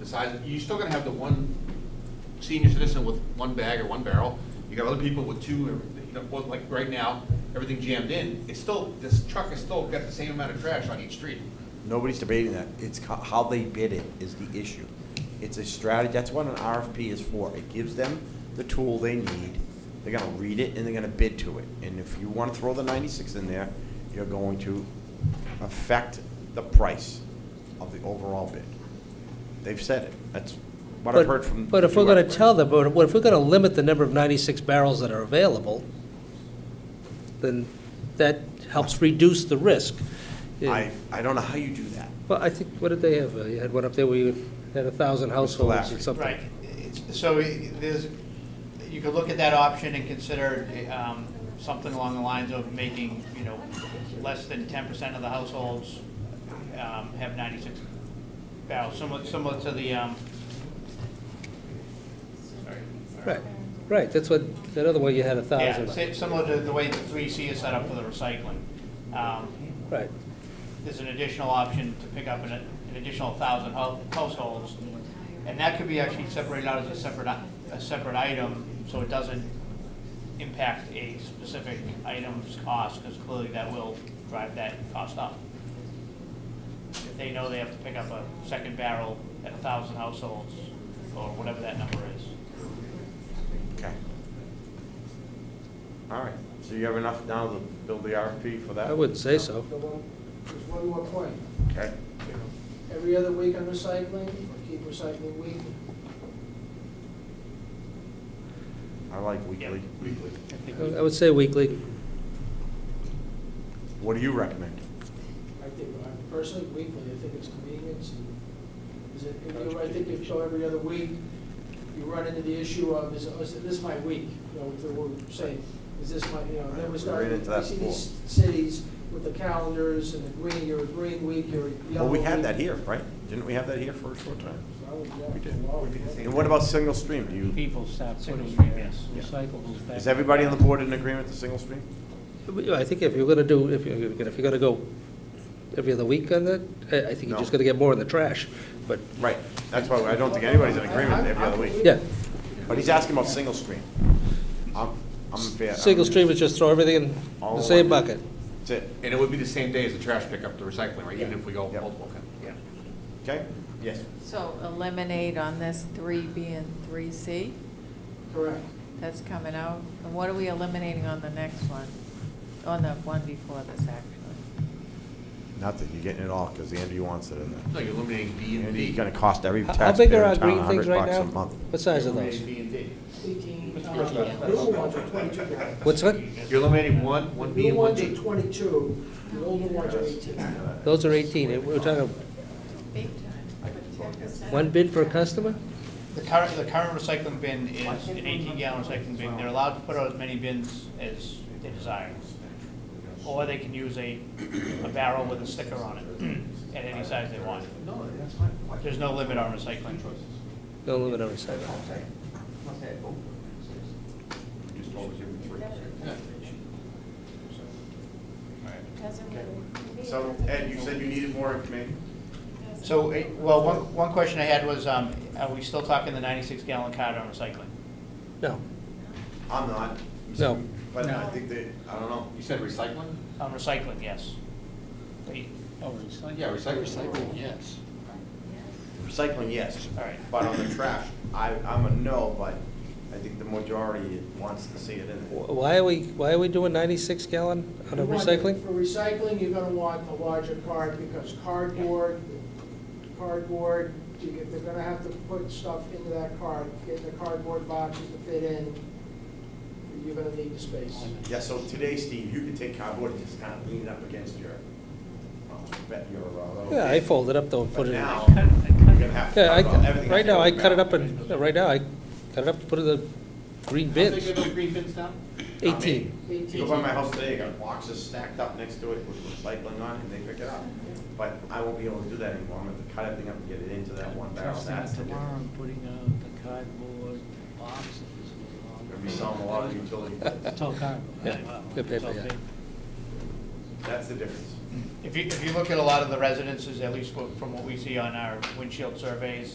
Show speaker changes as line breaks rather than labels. the size, you're still gonna have the one senior citizen with one bag or one barrel. You got other people with two, or, you know, well, like right now, everything jammed in. It's still, this truck has still got the same amount of trash on each street.
Nobody's debating that. It's co- how they bid it is the issue. It's a strategy, that's what an RFP is for. It gives them the tool they need. They're gonna read it and they're gonna bid to it. And if you wanna throw the ninety-six in there, you're going to affect the price of the overall bid. They've said it. That's what I've
But-
heard from.
But if
the
we're
two
gonna
experts.
tell them, but if we're gonna limit the number of ninety-six barrels that are available, then that helps reduce the risk.
I, I don't know how you do that.
Well, I think, what did they have? Uh, You had one up there where you had a thousand households or
Lafferty.
something.
Right, It's- so i- there's, you could look at that option and consider um, something along the lines of making, you know, less than ten percent of the households um, have ninety-six barrels, similar, similar to the, um, sorry.
Right, right, that's what, that other one you had a
Yeah,
thousand.
si- similar to the way the three C is set up for the recycling. Um,
Right,
There's an additional option to pick up an an additional thousand households. And that could be actually separated out as a separate, i- a separate item, so it doesn't impact a specific item's cost, because clearly that will drive that cost up. If they know they have to pick up a second barrel at a thousand households, or whatever that number is.
Okay. All right, so you have enough now to build the RFP for that?
I wouldn't say so.
The one- There's one more point.
Okay.
Every other week on recycling, or keep recycling week,
I like weekly. Weekly.
I would say weekly.
What do you recommend?
I think, uh, personally, weekly, I think it's convenience. and Is it, if you- I think if you go every other week, you run into the issue of, is, oh, is this my week? You know, if they were saying, is this my, you know, then we
Right,
start,
we ran into that
we see these cities with the calendars and the green, you're a green week, you're a
Well,
yellow
we had
week.
that here, right? Didn't we have that here for a short time?
Well, yeah,
We did.
well,
And what about single stream? Do you,
people stop putting
Single-stream,
their
yes.
recyclables back.
is everybody on the board in agreement to single stream?
I think if you're gonna do, if you're, if you're gonna go every other week on that, I, I think you're just
No.
gonna get more in the trash, but,
Right, that's why I don't think anybody's in agreement every other week.
yeah.
But he's asking about single stream. I'm, I'm fair.
Single stream is just throw everything in
All
the same
in.
bucket.
That's it,
And it would be the same day as the trash pickup, the recycling, right, even if we go
Yep.
multiple. Yeah.
okay? Yes.
So eliminate on this three B and three C,
Correct.
that's coming out. And what are we eliminating on the next one? On the one before this, actually?
Nothing, you're getting it all, because Andy wants it in there.
No, you're eliminating B and
And
D.
he's gonna cost every
How- How big are
taxpayer
our
in town
green
a
things
hundred
right
bucks
now?
a month.
What size are those?
Eliminating B and D.
New uh, ones are twenty-two now.
What's that?
You're eliminating one, one B
New
and one
ones
D.
are twenty-two, the older ones are eighteen.
Those are 18. We're talking
Big time.
one bid per customer?
The current, the current recycling bin is an eighteen gallon recycling bin, they're allowed to put out as many bins as they desire. Or they can use a, a barrel with a sticker on it, at any size they want.
No, that's fine.
There's no limit on recycling.
No limit on recycling.
Just always give them three.
So, Ed, you said you needed more information?
So, eh, well, one, one question I had was, um, are we still talking the ninety-six gallon card on recycling?
No.
I'm not.
No.
But I think that, I don't know.
You said recycling?
On recycling, yes. Wait,
Oh, recycling.
Yeah, recycling.
yes.
Recycling, yes.
All right.
But on the trash, I, I'm a no, but I think the majority wants to see it in there.
Wh- Why are we, why are we doing 96 gallon on
You
a
want-
recycling?
For recycling, you're gonna want a larger card because cardboard, cardboard, you get- they're gonna have to put stuff into that card, get the cardboard boxes to fit in. You're gonna need the space.
Yeah, so today, Steve, you could take cardboard and just kind of lean it up against your, well, I bet your, uh.
Yeah, I fold it up though and
But
put it in.
now, you're gonna have to.
Yeah, I,
cut it off. Everything has
right
to go
now, I
back.
cut it up and, yeah, right now, I cut it up, and put it in the green bins.
How big are those green bins now?
Not me.
18.
You go by my house today, I got boxes stacked up next to it with recycling on it, and they pick it up. But I won't be able to do that anymore, I'm gonna have to cut everything up and get it into that one barrel,
Trusting
that's the
tomorrow,
difference.
I'm putting out the cardboard boxes.
Gonna be selling a lot of utility bills,
It's all cardboard.
Yeah, good paper, yeah.
that's the difference.
If you, if you look at a lot of the residences, at least what- from what we see on our windshield surveys,